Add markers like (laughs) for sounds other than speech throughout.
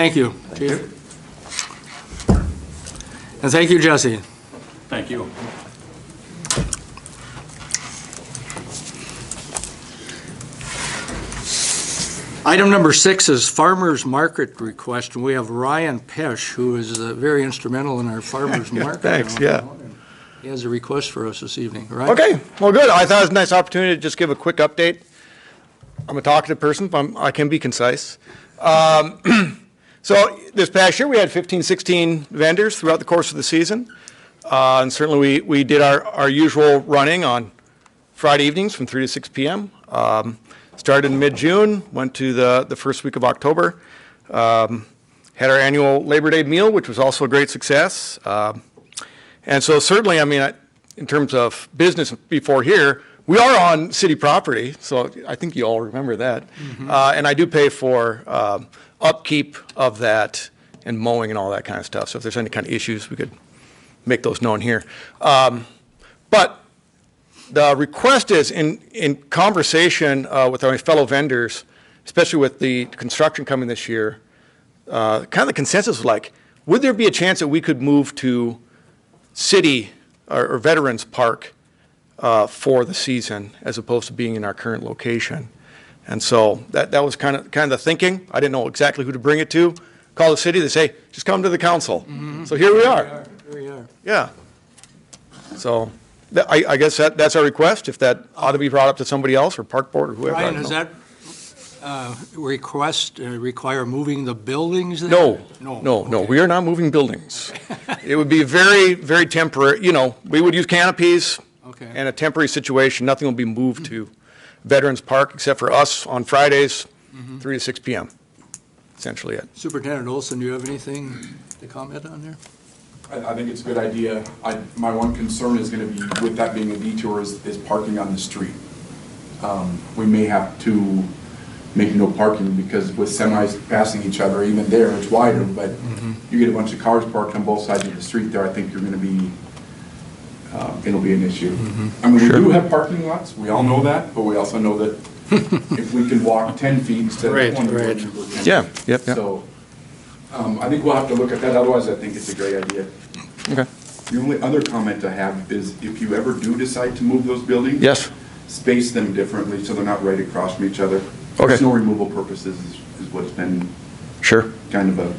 Thank you, Chief. And thank you, Jesse. Thank you. Item number six is farmer's market request, and we have Ryan Pesh, who is uh, very instrumental in our farmer's (laughs) Yeah, market. thanks, yeah. He has a request for us this evening, right? Okay, well, good. I thought it was a nice opportunity to just give a quick update. I'm a talkative person, but I'm- I can be concise. Um, (clears throat) So this past year, we had 15, 16 vendors throughout the course of the season. Uh, And certainly, we, we did our, our usual running on Friday evenings from 3 to 6 PM. Um, Started in mid-June, went to the, the first week of October. Um, Had our annual Labor Day meal, which was also a great success. Um, and so certainly, I mean, I- in terms of business before here, we are on city property, so I think you all remember that. Uh, And I do pay for um, upkeep of that and mowing and all that kind of stuff. So if there's any kind of issues, we could make those known here. Um, But the request is, in, in conversation uh, with our fellow vendors, especially with the construction coming this year, uh, kind of the consensus was like, would there be a chance that we could move to city or or Veterans Park uh, for the season as opposed to being in our current location. And so that, that was kind of, kind of the thinking. I didn't know exactly who to bring it to. Call the city, they say, just come to the council. So here we are, Here you are. yeah. So that- I, I guess that, that's our request, if that ought to be brought up to somebody else or park board or whoever. I Ryan, don't does know. that uh, request uh, require moving the buildings there? No, No. no, no, we are not (laughs) moving buildings. It would be very, very temporary, you know, we would use canopies Okay. and a temporary situation, nothing will be moved to Veterans Park except for us on Fridays, Mm-hmm. three to six PM, essentially it. Superintendent Olson, do you have anything to comment on there? I, I think it's a good idea. I, my one concern is gonna be, with that being a detour, is, is parking on the street. Um, we may have to make no parking, because with semis passing each other, even there, it's wider, but Mm-hmm. you get a bunch of cars parked on both sides of the street there, I think you're gonna be, uh, it'll be an issue. Mm-hmm. I mean, we do have parking lots, we all know that, but we also (laughs) know that if we can walk ten feet instead Right, of twenty. we're right. gonna go 10. Yeah, yep, yep. So, um, I think we'll have to look at that, otherwise I think it's a great idea. Okay. The only other comment I have is if you ever do decide to move those buildings. Yes. Space them differently so they're not right across from each other. Okay. Snow removal purposes is, is what's been Sure. kind of a,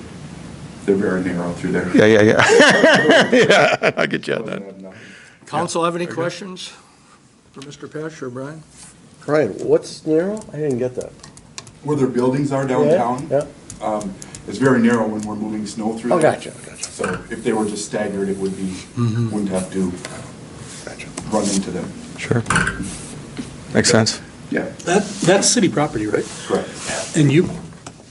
they're very narrow through there. Yeah, yeah, yeah. (laughs) Yeah, I get you on that. Council have any questions for Mr. Pesh or Brian? Ryan, what's narrow? I didn't get that. Where their buildings are downtown. Yeah, Um, it's very narrow when we're moving snow through. Oh, there. gotcha, gotcha. So if they were just staggered, it would be, wouldn't have to Gotcha. run into them. Sure. Makes sense. Yeah, That, that's city property, right? correct. And you,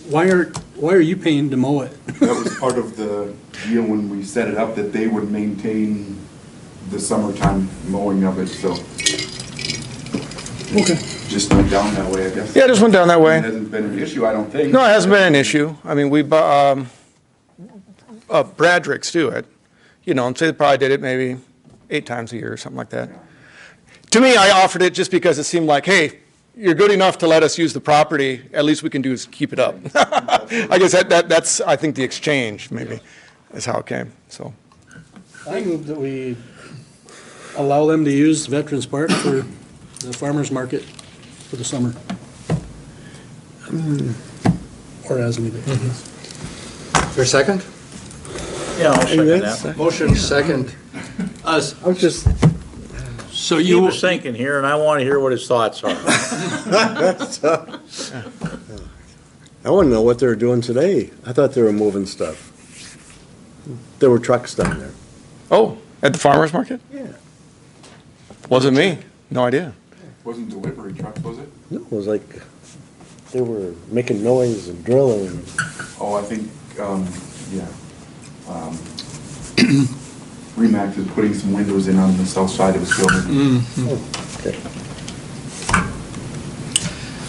why are, why are you paying to mow it? That was part of the deal when we set it up, that they would maintain the summertime mowing of it, so. Just went down that way, I guess. Yeah, just went down that way. It hasn't been an issue, I don't think. No, it hasn't been an issue. I mean, we, bu- um, uh, Bradrick's do it, you know, and say they probably did it maybe eight times a year or something like that. To me, I offered it just because it seemed like, hey, you're good enough to let us use the property, at least we can do is keep it up. (laughs) I guess that, that, that's, I think the exchange maybe is how it came, so. I move that we allow them to use Veterans Park for the farmer's market for the summer. Hmm. Or as needed. For a second? Yeah, I'll second that. Motion second. Us, I was just, so He you, was thinking here, and I want to hear what his thoughts are. I want to know what they were doing today. I thought they were moving stuff. There were trucks down there. Oh, at the farmer's market? Yeah. Wasn't me, no idea. Wasn't delivery truck, was it? No, it was like, they were making noise and drilling. Oh, I think, um, yeah. Um, (clears throat) Remax is putting some windows in on the south side of his building.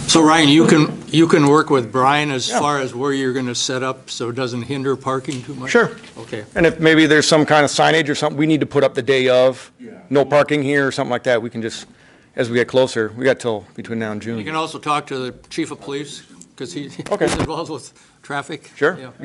so Ryan, you can, you can work with Brian as far as where you're going to set up so it doesn't hinder parking too much? Sure. Okay. And if maybe there's some kind of signage or something we need to put up the day of, Yeah. no parking here or something like that, we can just, as we get closer, we got till between now and You June. can also talk to the chief of police because he, (laughs) he's Okay. involved with traffic. Sure. Yeah.